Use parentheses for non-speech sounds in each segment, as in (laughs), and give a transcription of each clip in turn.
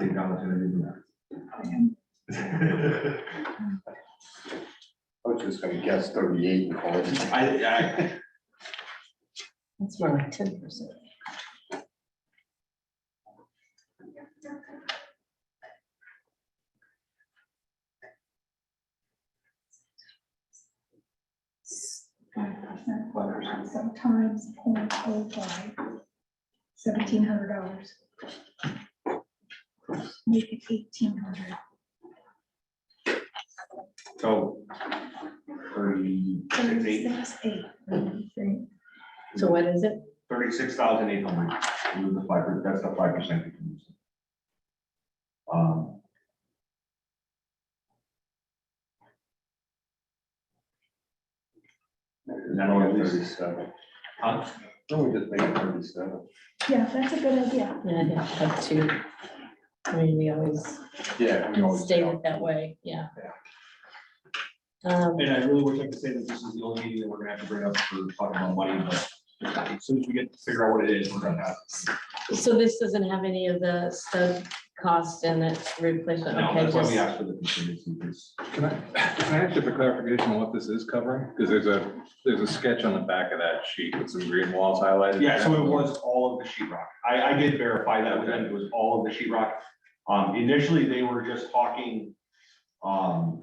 technology and everything. I was just gonna guess thirty-eight and call it. (laughs) I, I, That's more like ten percent. Five percent quotient, sometimes point oh five, seventeen hundred dollars. Maybe eighteen hundred, so. Thirty-six, eight, thirty-six, eight. So what is it? thirty-six thousand eight hundred, was the five, per- that's the five percent. you can use. Um, No, it's thirty-seven. huh? No, we just make it thirty-seven. Yeah, that's a good idea. Yeah, I'd have to have two. I mean, we always Yeah. we always state do. it that way, yeah. Um, And I really wish I could say that this is the only meeting that we're gonna have to bring up for talking about money, but as soon as we get to figure out what it is, we're gonna have. so this doesn't have any of the stud costs in it replacement, No, okay, that's why we just, asked for the contingency, because Can I, can I ask you for clarification on what this is covering? Because there's a, there's a sketch on the back of that sheet with some green walls highlighted. Yeah, so it was all of the sheetrock. I, I did verify that with them. It was all of the sheetrock. Um, initially, they were just talking, um,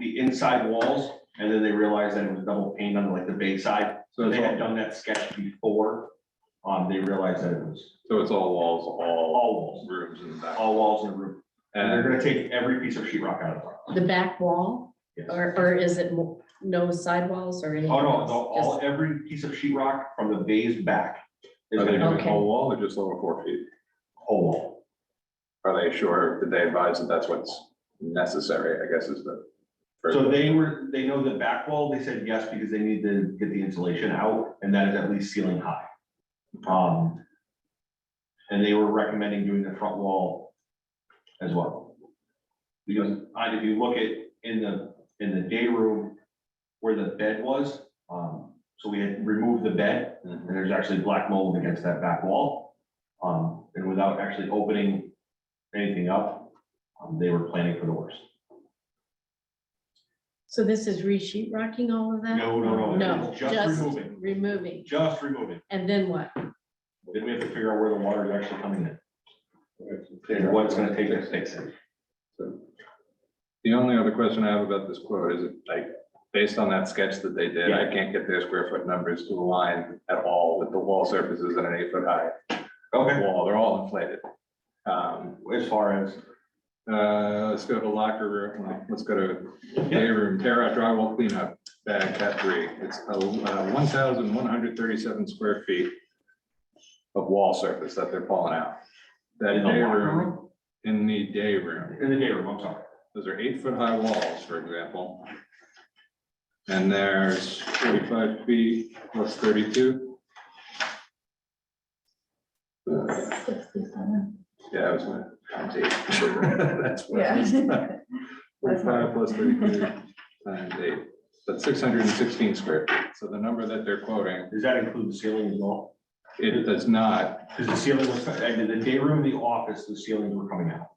the inside walls, and then they realized that it was double paint on like the base side. So So it's they had all, done that sketch before. Um, they realized that it was so it's all walls, all all walls, rooms in the back. all walls in the room. And they're And gonna take every piece of sheetrock out of the back wall? Yes. Or, or is it mo- no sidewalls or it. anything? Oh, no, else? the- all, every piece of sheetrock from the bays back is are gonna they be doing Okay. whole wall or just over four feet? whole wall. Are they sure, did they advise that that's what's necessary, I guess is the. So they were, they know the back wall, they said yes, because they need to get the insulation out, and that is at least ceiling high. Um. And they were recommending doing the front wall as well. Because I, if you look at, in the, in the day room where the bed was, um, so we had removed the bed, and there's actually black mold against that back wall. Um, and without actually opening anything up, um, they were planning for the worst. So this is re-sheet rocking all of that? No, no, no, No, it's just just removing. removing, Just remove it. and then what? Then we have to figure out where the water is actually coming in Yeah. and what it's gonna take to fix it. The only other question I have about this quote is like, based on that sketch that they did, I can't get their square foot numbers to align at all with the wall surfaces at an eight foot high. Okay. wall, they're all inflated. Um, As far as, uh, let's go to locker room, let's go to day room, tear out drywall cleanup, bag cat three. It's uh, one thousand one hundred thirty-seven square feet of wall surface that they're pulling out. That In the day locker room, in the day room, in the day room, I'm sorry. those are eight foot high walls, for example. And there's forty-five feet plus thirty-two, Uh, Sixty-seven. yeah, I was gonna. count eight. That's what I was- Forty-five plus thirty-two times eight, that's six hundred and sixteen square feet. So the number that they're quoting, Does that include the ceiling as well? it does not, Because the ceiling was, and the day room, the office, the ceilings were coming out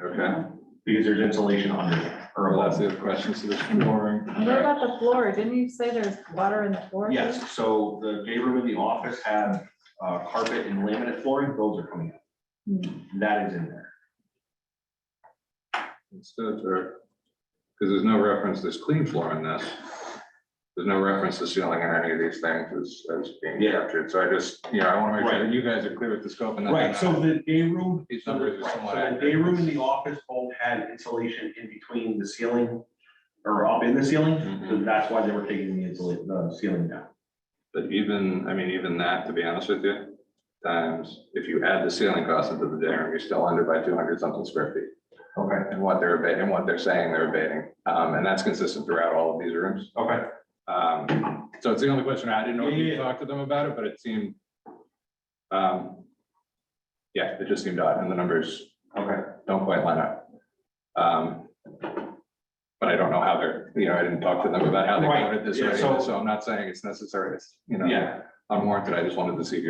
okay? because there's insulation under it or Well, that's above. the other question, so there's flooring. What about the floor? Didn't you say there's water in the floor? Yes, so the day room and the office have uh, carpet and laminate flooring, those are coming out. That is in there. Because there's no reference, there's clean floor in this. There's no reference to ceiling in any of these things as, as being Yeah. captured. So I just, you know, I want to make sure that you guys are clear with the scope and that. Right, so the day room. These numbers are Right, somewhat So the day accurate. room and the office both had insulation in between the ceiling or up in the ceiling. So Mhm. that's why they were taking the insulate, the ceiling down. But even, I mean, even that, to be honest with you, times, if you add the ceiling cost into the dinner, you're still under by two hundred something square feet. Okay. And what they're abating, and what they're saying they're abating. Um, and that's consistent throughout all of these rooms. Okay. Um, so it's the only question, I didn't know if Yeah, you yeah. talked to them about it, but it seemed. Um. Yeah, it just seemed odd, and the numbers Okay. don't quite line up. Um. But I don't know how they're, you know, I didn't talk to them about how they Right, counted this, yeah, or so- anything, so I'm not saying it's necessary, it's, you know. Yeah. Unwarranted, I just wanted to see if you